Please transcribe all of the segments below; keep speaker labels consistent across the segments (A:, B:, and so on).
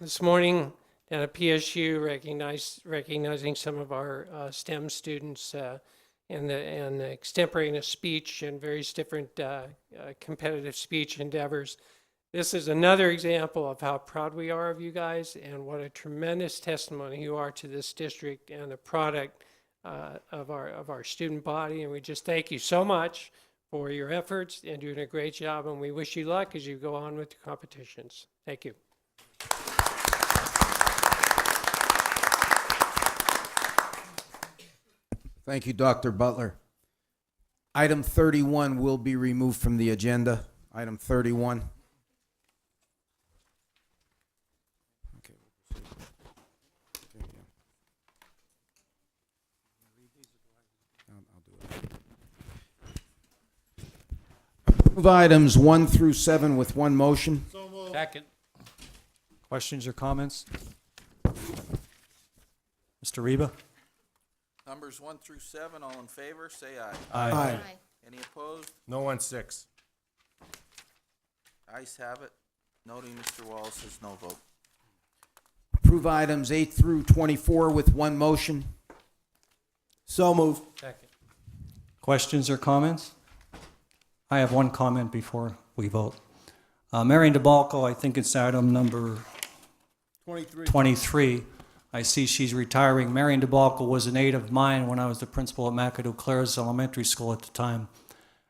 A: this morning down at PSU, recognize, recognizing some of our uh, STEM students uh, and the, and the extemporaneous speech and various different uh, uh, competitive speech endeavors. This is another example of how proud we are of you guys and what a tremendous testimony you are to this district and the product uh, of our, of our student body. And we just thank you so much for your efforts and doing a great job. And we wish you luck as you go on with the competitions. Thank you.
B: Thank you, Dr. Butler. Item 31 will be removed from the agenda. Item 31. Move items 1 through 7 with one motion.
C: Second. Questions or comments? Mr. Reba?
D: Numbers one through seven, all in favor, say aye.
B: Aye.
D: Any opposed?
E: No on six.
D: Ayes have it. Noting Mr. Wallace's no vote.
B: Approve items 8 through 24 with one motion. So moved.
A: Second.
C: Questions or comments? I have one comment before we vote. Uh, Marion DeBalco, I think it's item number 23. I see she's retiring. Marion DeBalco was an aide of mine when I was the principal at McAdoo Clares Elementary School at the time.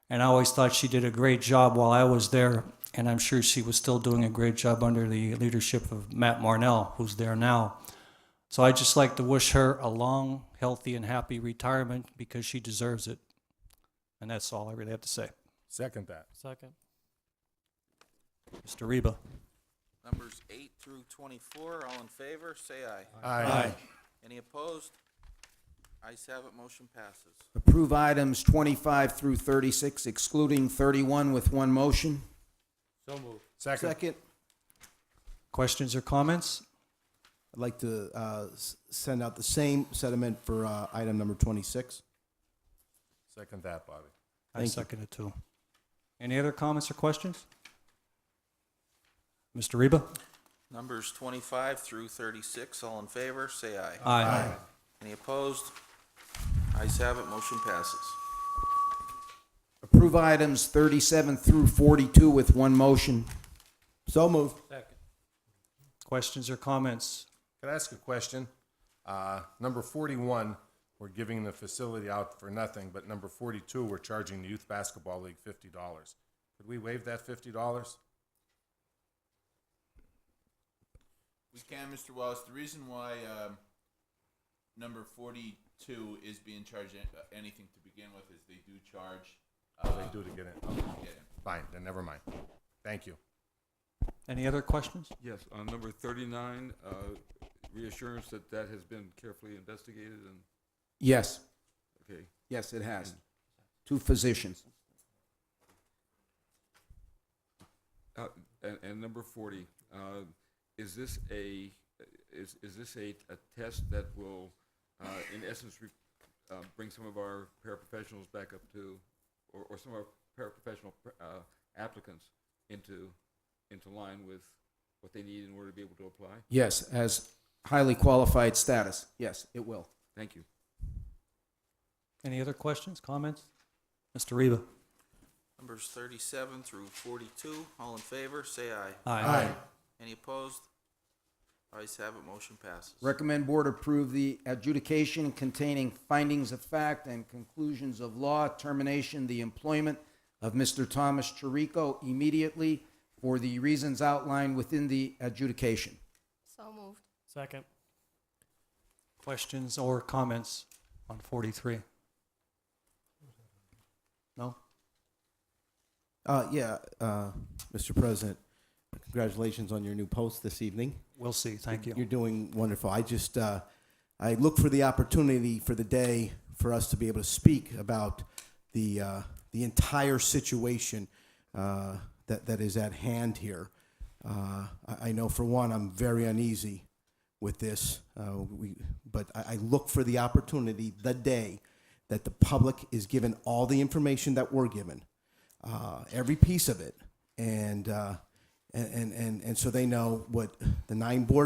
C: And I always thought she did a great job while I was there, and I'm sure she was still doing a great job under the leadership of Matt Marnell, who's there now. So I'd just like to wish her a long, healthy, and happy retirement because she deserves it. And that's all I really have to say.
E: Second that.
A: Second.
C: Mr. Reba.
D: Numbers eight through twenty-four, all in favor, say aye.
E: Aye.
D: Any opposed? Ayes have it, motion passes.
B: Approve items 25 through 36 excluding 31 with one motion.
E: Second.
C: Questions or comments?
F: I'd like to uh, s- send out the same sentiment for uh, item number 26.
E: Second that, Bobby.
C: I second it too. Any other comments or questions? Mr. Reba?
D: Numbers twenty-five through thirty-six, all in favor, say aye.
C: Aye.
D: Any opposed? Ayes have it, motion passes.
B: Approve items 37 through 42 with one motion.
F: So moved.
A: Second.
C: Questions or comments?
E: Can I ask a question? Uh, number forty-one, we're giving the facility out for nothing, but number forty-two, we're charging the Youth Basketball League fifty dollars. Could we waive that fifty dollars?
G: We can, Mr. Wallace. The reason why um, number forty-two is being charged an- uh, anything to begin with is they do charge. uh,
E: Oh, they do to get in. Okay,
G: yeah.
E: Fine, then never mind. Thank you.
C: Any other questions?
H: Yes, on number thirty-nine, uh, reassurance that that has been carefully investigated and,
B: Yes,
H: okay.
B: yes, it has. Two physicians.
H: Uh, And, and number forty, uh, is this a, is, is this a, a test that will, uh, in essence, re- uh, bring some of our paraprofessionals back up to, or, or some of our paraprofessional uh, applicants into, into line with what they need in order to be able to apply?
B: Yes, as highly qualified status. Yes, it will.
H: Thank you.
C: Any other questions, comments? Mr. Reba?
D: Numbers thirty-seven through forty-two, all in favor, say aye.
C: Aye.
D: Any opposed? Ayes have it, motion passes.
B: Recommend board approve the adjudication containing findings of fact and conclusions of law, termination the employment of Mr. Thomas Chirico immediately for the reasons outlined within the adjudication.
I: So moved.
A: Second.
C: Questions or comments on 43? No?
F: Uh, Yeah, uh, Mr. President, congratulations on your new post this evening.
C: We'll see. Thank you.
F: You're doing wonderful. I just, uh, I look for the opportunity for the day for us to be able to speak about the, uh, the entire situation uh, that, that is at hand here. Uh, I, I know for one, I'm very uneasy with this, uh, we, but I, I look for the opportunity the day that the public is given all the information that we're given uh, every piece of it, and uh, and and and so they know what the nine board